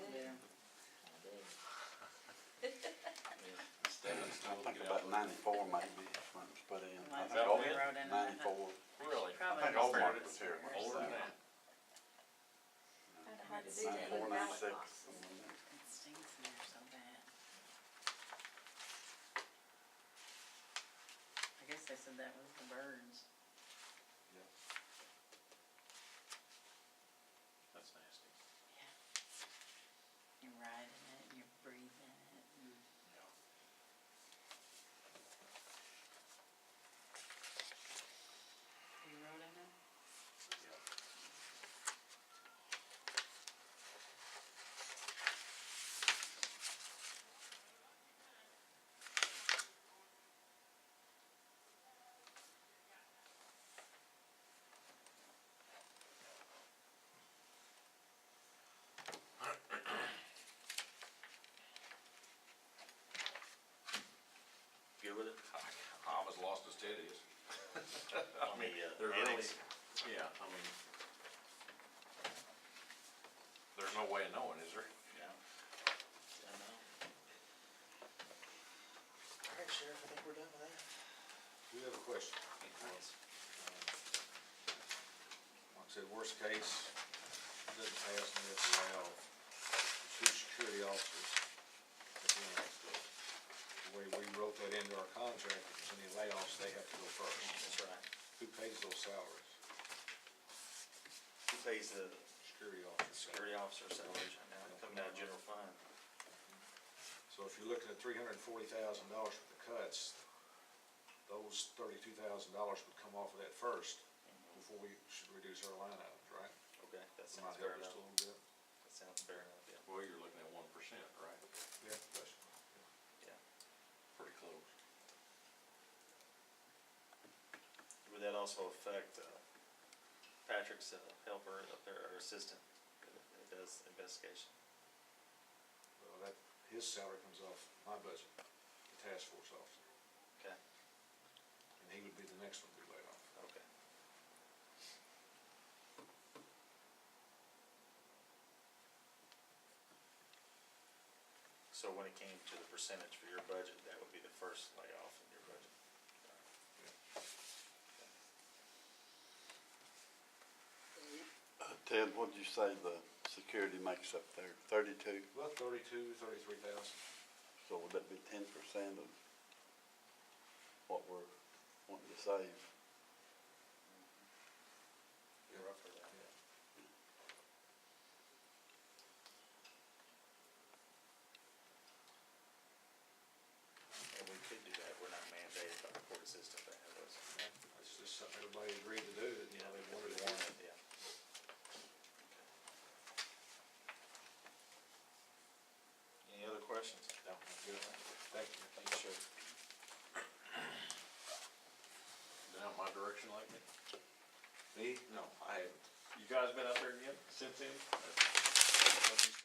ninety-four maybe is when it was put in. I Last think time we Alden- rode in on it. Ninety-four. Really? I Probably think was Oldmark was here. when it was older than done. that. I'd hard to do that Ninety-four, with ballot ninety-six. boxes. something like It that. stinks in there so bad. I guess they said that was the birds. That's nasty. You're riding it, and you're breathing it. and You rode in it? Good with it? I was lost as Ted is. On the, uh, They're really, annex. yeah, I mean, there's no way of knowing, is there? Yeah. I know. All right, Sheriff, I think we're done with that. Do you have a question? Uh, Like I said, worst case, doesn't pass and it's allowed, two security officers at the end of the way we wrote that into our contract, if there's any layoffs, they have to go first. That's right. Who pays those salaries? Who pays the Security officers. security officer salaries right now, coming out of general fund? So if you're looking at three hundred and forty thousand dollars for the cuts, those thirty-two thousand dollars would come off of that first before we should reduce our line items, right? Okay, that Am I sounds fair helping enough. just a little bit? That sounds fair enough, yeah. Well, you're looking at one percent, right? Yeah. that's Yeah. Pretty close. Would that also affect uh, Patrick's uh, helper up there, or assistant, that does investigation? Well, that, his salary comes off my budget, the task force officer, Okay, and he would be the next one to be laid off. okay. So when it came to the percentage for your budget, that would be the first layoff in your budget? Uh, Ted, what'd you say the security makes up there? Thirty-two? About thirty-two, thirty-three thousand. So would that be ten percent of what we're wanting to save? You're up for that. And we could do that, we're not mandated by the court system to have those. That's just something everybody agreed to do, that, you know, they If wanted we to want do. it, Yeah. Any other questions? No, I'm good. Thank you. Thank you, Sheriff. Down my direction lately? Me? No, I haven't. You guys been up there again since then?